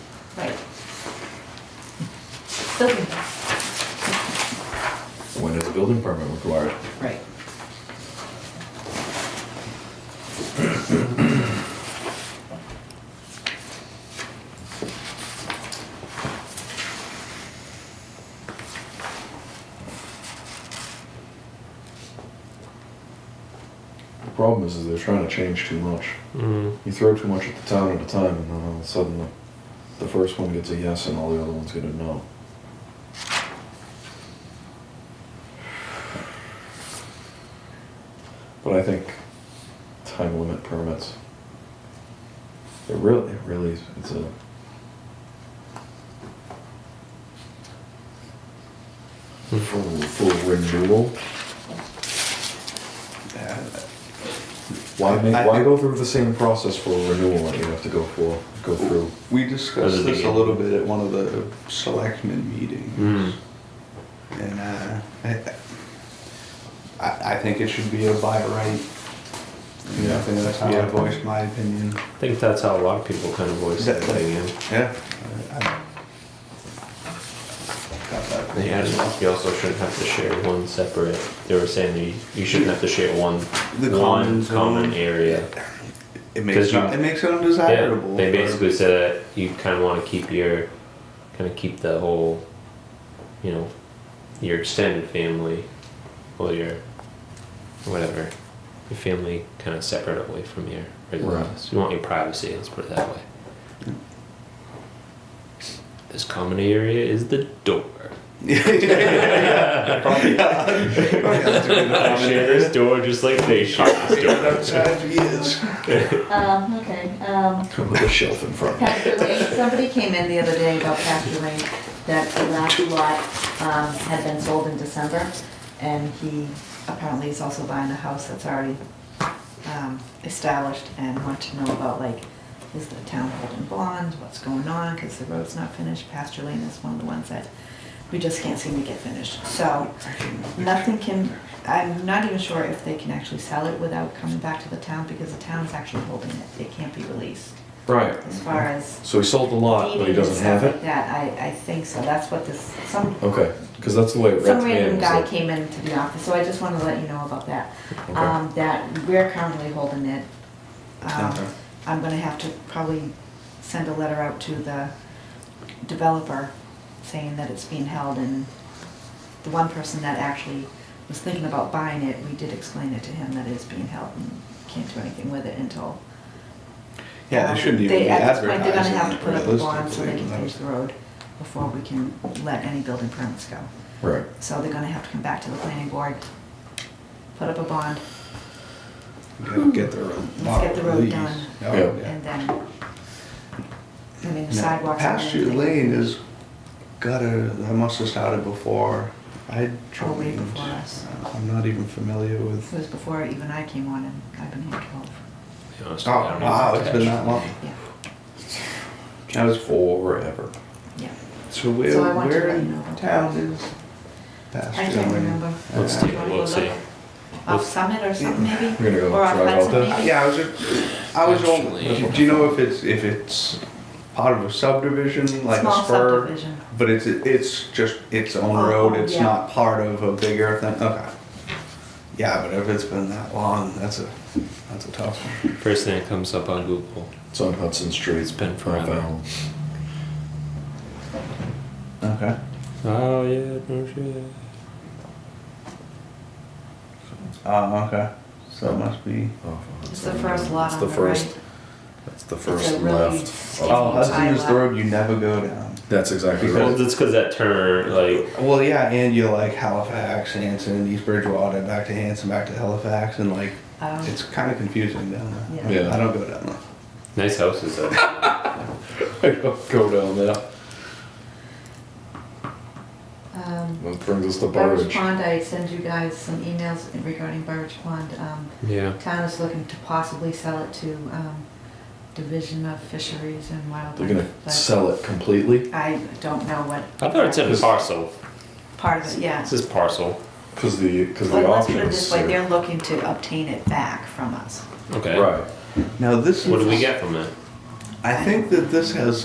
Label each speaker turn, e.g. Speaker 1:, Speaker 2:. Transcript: Speaker 1: Right. Building,
Speaker 2: When is a building permit required?
Speaker 1: right.
Speaker 2: The problem is, is they're trying to change too much.
Speaker 3: Mm.
Speaker 2: You throw too much at the town at a time, and then all of a sudden, the- the first one gets a yes, and all the other ones get a no. But I think time limit permits. It really, it really, is- it's a. For, for renewal. Why make,
Speaker 4: I-
Speaker 2: why go through the same process for renewal that you have to go for, go through?
Speaker 4: We
Speaker 3: Those are
Speaker 4: discussed
Speaker 3: the
Speaker 4: this a
Speaker 3: game.
Speaker 4: little bit at one of the selectmen
Speaker 3: Hmm.
Speaker 4: meetings. And uh, I, I I think it should be a by right. You know, I think that's how I
Speaker 3: Yeah.
Speaker 4: voiced my opinion.
Speaker 3: I think that's how a lot of people kind of voice their
Speaker 4: That- that-
Speaker 3: opinion.
Speaker 4: Yeah. Uh, I- I- Got that.
Speaker 3: They
Speaker 4: as well.
Speaker 3: you also shouldn't have to share one separate. They were saying that you, you shouldn't have to share one
Speaker 4: The
Speaker 3: one
Speaker 4: common zone.
Speaker 3: common area.
Speaker 4: It
Speaker 3: 'Cause
Speaker 4: makes,
Speaker 3: you-
Speaker 4: it it makes it
Speaker 3: Yeah,
Speaker 4: undesirable.
Speaker 3: they basically said that you kind of want to keep your kind of keep the whole, you know, your extended family or your whatever your family kind of separate away from your regular
Speaker 2: Right.
Speaker 3: lives. You want your privacy. Let's put it that way. This common area is the door.
Speaker 4: Yeah, yeah, Probably. yeah. Probably has to be the
Speaker 3: I
Speaker 4: common
Speaker 3: share
Speaker 4: area.
Speaker 3: this door just like they share this door.
Speaker 4: Outside years.
Speaker 1: Um, okay, um,
Speaker 2: With a shelf in front.
Speaker 1: pasture lane, somebody came in the other day about pasture lane, that the last lot, um, had been sold in December, and he apparently is also buying a house that's already, um, established, and want to know about, like, is the town holding bonds, what's going on, because the road's not finished, pasture lane is one of the ones that we just can't seem to get finished, so, nothing can, I'm not even sure if they can actually sell it without coming back to the town, because the town's actually holding it, it can't be released,
Speaker 2: Right.
Speaker 1: as far as
Speaker 2: So he sold the lot, but he
Speaker 1: dating and
Speaker 2: doesn't have
Speaker 1: stuff like
Speaker 2: it?
Speaker 1: that, I, I think so, that's what this, some,
Speaker 2: Okay, because that's the way it read
Speaker 1: some
Speaker 2: to me. it
Speaker 1: random
Speaker 2: was
Speaker 1: guy
Speaker 2: like-
Speaker 1: came into the office, so I just wanna let you know about that.
Speaker 2: Okay.
Speaker 1: Um, that we're currently holding it. Um,
Speaker 4: Okay.
Speaker 1: I'm gonna have to probably send a letter out to the developer saying that it's being held and the one person that actually was thinking about buying it, we did explain it to him that it's being held and can't do anything with it until
Speaker 4: Yeah,
Speaker 1: um,
Speaker 4: they shouldn't even
Speaker 1: they-
Speaker 4: be
Speaker 1: At this
Speaker 4: advertising
Speaker 1: point, they're gonna have to put up a bond so
Speaker 4: realistically,
Speaker 1: they can
Speaker 4: without-
Speaker 1: finish the road before we can let any building permits go.
Speaker 2: Right.
Speaker 1: So they're gonna have to come back to the planning board, put up a bond,
Speaker 4: Yeah, Get the road.
Speaker 1: Let's get the road
Speaker 4: released.
Speaker 1: done.
Speaker 4: Oh,
Speaker 2: Yeah.
Speaker 4: yeah.
Speaker 1: and then, I mean, the
Speaker 4: Now,
Speaker 1: sidewalks. and
Speaker 4: Pasture
Speaker 1: everything.
Speaker 4: Lane is gutter, that must have started before I
Speaker 1: Oh, way
Speaker 4: joined.
Speaker 1: before us.
Speaker 4: I'm not even familiar
Speaker 1: It
Speaker 4: with,
Speaker 1: was before even I came on and I've been here twelve,
Speaker 3: You know, it's-
Speaker 4: oh,
Speaker 3: I don't know
Speaker 4: wow,
Speaker 3: if
Speaker 4: it's
Speaker 3: it's
Speaker 4: been
Speaker 3: actually-
Speaker 4: that long.
Speaker 1: yeah,
Speaker 2: That was forever.
Speaker 1: yeah.
Speaker 4: So where,
Speaker 1: So I want to
Speaker 4: where
Speaker 1: let you
Speaker 4: in
Speaker 1: know.
Speaker 4: town is Pasture
Speaker 1: I
Speaker 4: Lane?
Speaker 1: can't remember.
Speaker 3: Let's
Speaker 4: Uh,
Speaker 3: take a
Speaker 1: Wanna go
Speaker 3: look, see.
Speaker 1: look? Off Summit or something maybe?
Speaker 2: We're gonna go
Speaker 1: Or off
Speaker 2: drive out
Speaker 1: Hudson
Speaker 2: there.
Speaker 1: maybe?
Speaker 4: Yeah, I was just, I was
Speaker 3: Pasture
Speaker 4: only,
Speaker 3: Lane.
Speaker 4: do you know if it's, if it's part of a subdivision, like a
Speaker 1: Small
Speaker 4: spur?
Speaker 1: subdivision.
Speaker 4: But it's, it's just its own
Speaker 1: Oh,
Speaker 4: road, it's
Speaker 1: yeah.
Speaker 4: not part of a bigger thing, okay. Yeah, but if it's been that long, that's a, that's a tough one.
Speaker 3: First thing that comes up on Google.
Speaker 2: It's on Hudson Street.
Speaker 3: It's been
Speaker 2: I
Speaker 3: forever.
Speaker 2: found.
Speaker 4: Okay.
Speaker 3: Oh yeah, no shit.
Speaker 4: Oh, okay, so it must be.
Speaker 2: off of
Speaker 1: It's the
Speaker 2: Hudson.
Speaker 1: first lot
Speaker 2: Oh, It's
Speaker 1: on
Speaker 2: the
Speaker 1: the
Speaker 2: first-
Speaker 1: right.
Speaker 2: That's the
Speaker 1: a
Speaker 2: first
Speaker 1: really
Speaker 2: left.
Speaker 1: skinny-
Speaker 2: Oh,
Speaker 4: Oh, Hudson is the road you never go down.
Speaker 2: That's exactly
Speaker 3: Well,
Speaker 2: right.
Speaker 3: that's because that turn, like,
Speaker 4: Well, yeah, and you're like Halifax, Hanson, East Bridgewater, back to Hanson, back to Halifax, and like,
Speaker 1: Um,
Speaker 4: it's kinda confusing down there.
Speaker 2: Yeah. Yeah.
Speaker 4: I don't go down there.
Speaker 3: nice houses. though.
Speaker 2: Go down there.
Speaker 1: um,
Speaker 2: That brings us to
Speaker 1: Burridge
Speaker 2: Burridge.
Speaker 1: Pond, I send you guys some emails regarding Burridge Pond. Um,
Speaker 3: yeah.
Speaker 1: Town is looking to possibly sell it to um, Division of Fisheries and
Speaker 2: They're
Speaker 1: Wildlife.
Speaker 2: gonna
Speaker 1: but
Speaker 2: sell it completely
Speaker 1: I don't know what.
Speaker 3: I thought it said
Speaker 2: This-
Speaker 3: parcel.
Speaker 1: Part of it, yeah.
Speaker 3: This is parcel.
Speaker 2: because the because
Speaker 1: But
Speaker 2: the
Speaker 1: let's put
Speaker 2: option
Speaker 1: it
Speaker 2: is
Speaker 1: this way,
Speaker 2: to-
Speaker 1: they're looking to obtain it back from us.
Speaker 3: Okay.
Speaker 2: right.
Speaker 4: Now, this
Speaker 3: What do we
Speaker 4: is,
Speaker 3: get from it?
Speaker 4: I think that this has